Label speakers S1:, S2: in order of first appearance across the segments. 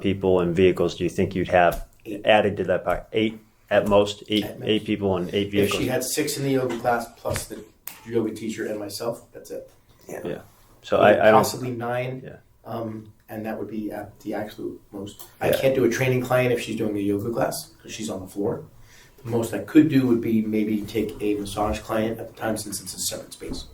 S1: people and vehicles do you think you'd have added to that pie? Eight at most, eight
S2: At most.
S1: eight people and eight
S2: If
S1: vehicles.
S2: she had six in the yoga class plus the yoga teacher and myself, that's it.
S1: Yeah. so I, I don't.
S2: possibly nine.
S1: Yeah.
S2: Um, and that would be at the absolute most. I
S1: Yeah.
S2: can't do a training client if she's doing a yoga class because she's on the floor. The most I could do would be maybe take a massage client at the time since it's a separate space.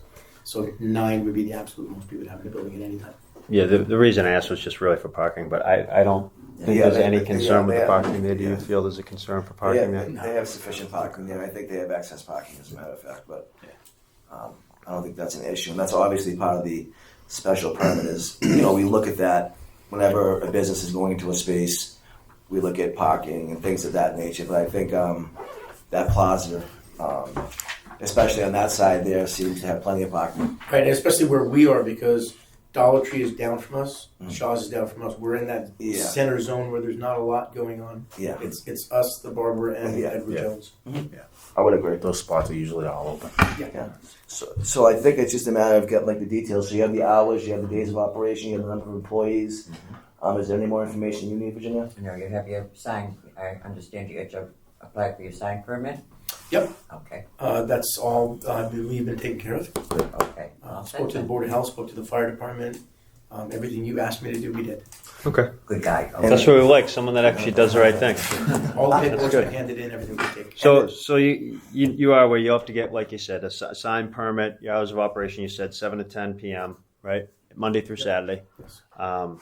S2: So nine would be the absolute most we would have in the building at any time.
S1: Yeah, the, the reason I asked was just really for parking, but I, I don't think
S3: Yeah,
S1: there's
S3: they-
S1: any
S3: they-
S1: concern
S3: yeah,
S1: with the
S3: they-
S1: parking there. Do you
S3: yeah.
S1: feel there's a concern for
S3: Yeah,
S1: parking
S3: they,
S1: there?
S3: they have sufficient parking there. I think they have access parking, as a matter of fact, but um, I don't think that's an issue. And that's obviously part of the special permit is, you know, we look at that whenever a business is going into a space, we look at parking and things of that nature. But I think um, that plaza, um, especially on that side there, seems to have plenty of parking.
S2: Right, and especially where we are because Dollar Tree is down from us,
S1: Mm.
S2: Shaw's is down from us. We're in that
S3: Yeah.
S2: center zone where there's not a lot going on.
S3: Yeah,
S2: It's it's us, the barber, and
S3: Yeah.
S2: Edward
S4: Yeah.
S2: Jones.
S3: I would agree.
S4: Those spots are usually all open.
S3: So, so I think it's just a matter of getting like the details. So you have the hours, you have the days of operation, you have the number of employees. Um, is there any more information you need, Virginia?
S5: No, you have your sign, I understand you had to apply for your sign permit?
S2: Yep.
S5: Okay,
S2: Uh, that's all uh, we've been taking care of.
S5: okay.
S2: Uh,
S5: All
S2: spoke
S5: set
S2: to the
S5: then.
S2: board of health, spoke to the fire department. Um, everything you asked me to do, we did.
S1: Okay.
S5: Good guy. okay.
S1: That's what we like, someone that actually does the right thing.
S2: All the paperwork
S1: good.
S2: was handed in, everything we did.
S1: So, so you, you you are where you have to get, like you said, a si- sign permit. Your hours of operation, you said seven to ten p.m. Right, Monday through Saturday,
S2: Yes.
S1: um,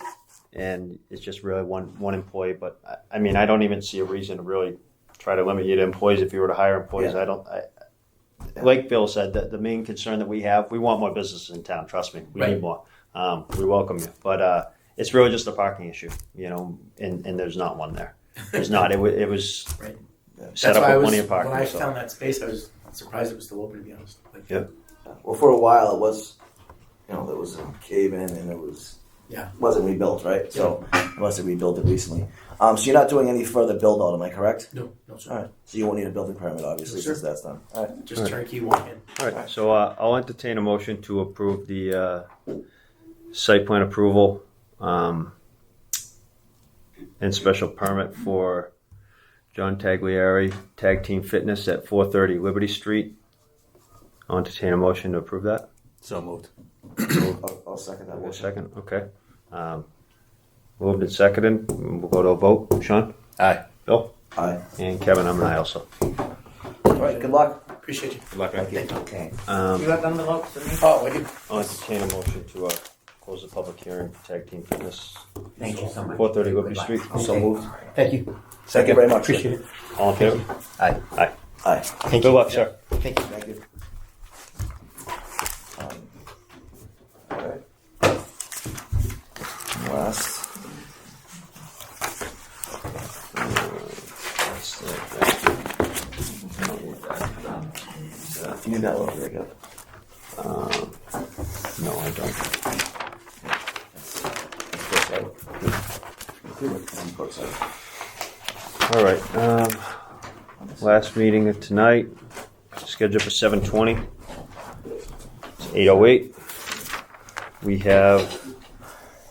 S1: and it's just really one one employee. But I, I mean, I don't even see a reason to really try to limit you to employees if you were to hire employees. I don't. I, like Bill said, that the main concern that we have, we want more businesses in town. Trust me, we
S2: Right.
S1: need more. Um, we welcome you, but uh, it's really just a parking issue, you know. And, and there's not one there. There's not. It, wa it was
S2: Right.
S1: set
S2: That's
S1: up
S2: why I
S1: with
S2: was-
S1: plenty of parking.
S2: When I
S1: so.
S2: found that space, I was surprised it was still open, to be honest. Like,
S1: Yeah.
S3: Well, for a while it was, you know, there was a cave in and it was
S2: Yeah.
S3: wasn't rebuilt, right? So unless they rebuilt it recently, um, so you're not doing any further build out, am I correct?
S2: No, no, sir.
S3: All right. So you won't need a building permit, obviously,
S2: Sure.
S3: since that's done. All right.
S2: Just turnkey walk in.
S1: All right, so uh, I'll entertain a motion to approve the uh, site plan approval um, and special permit for John Tagliari Tag Team Fitness at 430 Liberty Street. I'll entertain a motion to approve that.
S4: So moved.
S3: I'll, I'll second that
S1: Wait a
S3: motion.
S1: second, okay. Um, Moved and seconded, we'll go to a vote. Sean?
S4: Aye.
S1: Bill?
S3: All right.
S1: And Kevin, I'm an aye also.
S3: All right. Good luck.
S2: Appreciate you.
S1: Good luck, man.
S3: Thank you.
S5: Okay.
S1: Um,
S5: You have envelopes for me?
S2: Oh, I did.
S1: I'll entertain a motion to uh, close the public hearing for Tag Team Fitness
S5: Thank you so much.
S1: 430 Liberty
S5: Goodbye.
S1: Street.
S5: Okay.
S3: So moved.
S2: Thank you.
S3: Thank you very much.
S2: Appreciate it.
S1: All in favor? Aye. Aye.
S3: All right.
S1: Good luck, sir.
S2: Thank you.
S3: Thank you. Um, all right. Last. You need that one very good.
S1: Um, No, I don't. All right. Um, last meeting of tonight, scheduled for 7:20. It's 8:08. We have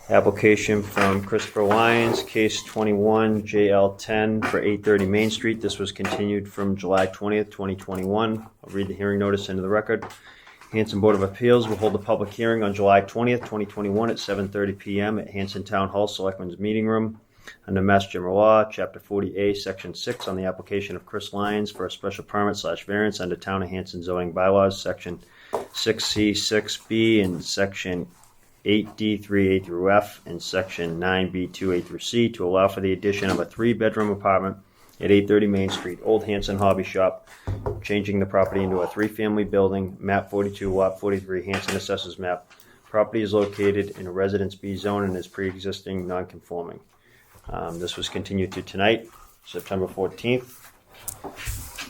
S1: application from Christopher Lyons, case 21 JL10 for 830 Main Street. This was continued from July 20th, 2021. I'll read the hearing notice into the record. Hanson Board of Appeals will hold a public hearing on July 20th, 2021 at 7:30 PM at Hanson Town Hall Selectmen's Meeting Room under Mass General Law, Chapter 40A, Section 6, on the application of Chris Lyons for a special permit slash variance under Town of Hanson zoning bylaws, Section 6C, 6B, and Section 8D, 3A through F, and Section 9B, 2A through C, to allow for the addition of a three-bedroom apartment at 830 Main Street, Old Hanson Hobby Shop, changing the property into a three-family building, map 42, lot 43, Hanson Assessors Map. Property is located in a Residence B zone and is pre-existing non-conforming. Um, this was continued to tonight, September 14th.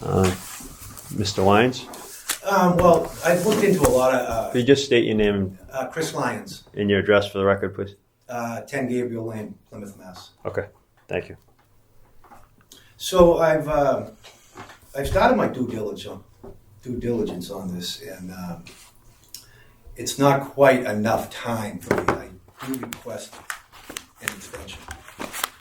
S1: Um, Mr. Lyons,
S6: Um, well, I've looked into a lot of,
S1: could you just state your name
S6: uh, uh, Chris Lyons,
S1: and your address for the record, please?
S6: uh, ten Gabriel Lane, Plymouth, Mass.
S1: Okay, thank you.
S6: So I've, uh, I've started my due diligence, due diligence on this and, um, it's not quite enough time for me. I do request an extension.